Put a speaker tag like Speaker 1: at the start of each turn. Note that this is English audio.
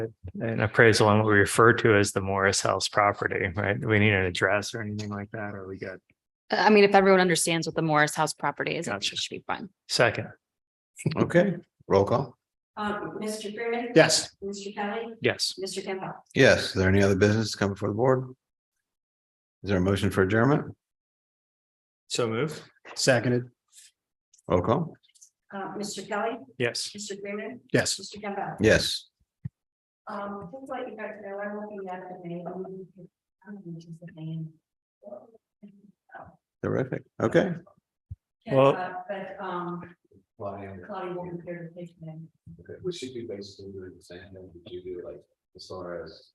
Speaker 1: an appraisal on what we refer to as the Morris House property, right? Do we need an address or anything like that? Or we got
Speaker 2: I mean, if everyone understands what the Morris House property is, it
Speaker 1: Gotcha.
Speaker 2: should be fine.
Speaker 1: second?
Speaker 3: Okay, roll call.
Speaker 4: Um, Mr. Freeman.
Speaker 3: Yes.
Speaker 4: Mr. Kelly,
Speaker 1: Yes.
Speaker 4: Mr. Campbell.
Speaker 3: Yes, is there any other business coming before the board? Is there a motion for adjournment?
Speaker 1: So move?
Speaker 3: Seconded. Roll call.
Speaker 4: Uh, Mr. Kelly,
Speaker 1: Yes.
Speaker 4: Mr. Freeman,
Speaker 3: Yes.
Speaker 4: Mr. Campbell.
Speaker 3: Yes,
Speaker 4: Um, just let you guys know, I'm looking at the name. um, which is the name.
Speaker 3: terrific. Okay.
Speaker 1: Well-
Speaker 4: Uh, But, um, Claudia will compare the patient.
Speaker 5: Okay, Would she be basically doing the same thing that you do, like, as far as